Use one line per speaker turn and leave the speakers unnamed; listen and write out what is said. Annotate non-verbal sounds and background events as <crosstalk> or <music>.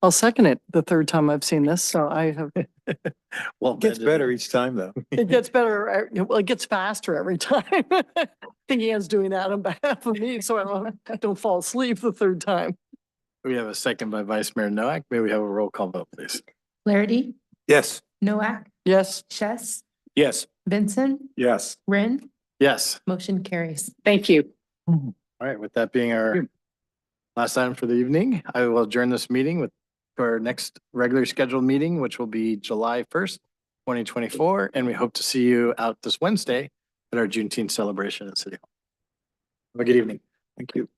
I'll second it the third time I've seen this, so I have,
Well,
Gets better each time, though.
it gets better, uh, you know, well, it gets faster every time. <laughs> I think Ann's doing that on behalf of me, so I don't, don't fall asleep the third time.
We have a second by Vice Mayor Noack. May we have a roll call vote, please?
Flaherty,
Yes.
Noack,
Yes,
Chess,
Yes.
Vincent,
Yes.
Ren,
Yes.
motion carries.
thank you.
All right, with that being our last item for the evening, I will adjourn this meeting with to our next regular scheduled meeting, which will be July first, twenty twenty-four, and we hope to see you out this Wednesday at our Juneteenth celebration at City Hall. Have a good evening. Thank you.